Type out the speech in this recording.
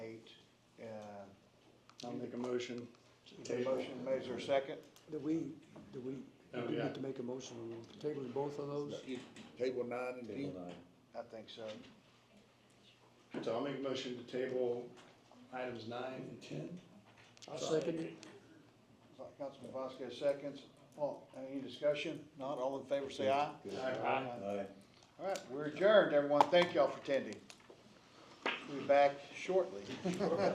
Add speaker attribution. Speaker 1: I'll make a motion.
Speaker 2: The motion made, uh, is there a second?
Speaker 3: Do we, do we,
Speaker 1: Oh,
Speaker 3: do we
Speaker 1: yeah.
Speaker 3: need to make a motion on tabling both of those?
Speaker 2: Table nine and
Speaker 4: Table
Speaker 2: ten?
Speaker 4: nine.
Speaker 2: I think so.
Speaker 1: So I'll make a motion to table items nine and ten.
Speaker 3: I second it.
Speaker 2: Councilman Vasquez seconds. All, any discussion? Not, all in favor, say aye.
Speaker 4: Good.
Speaker 1: Aye.
Speaker 4: Aye.
Speaker 2: All right, we're adjourned, everyone. Thank y'all for attending. We'll be back shortly.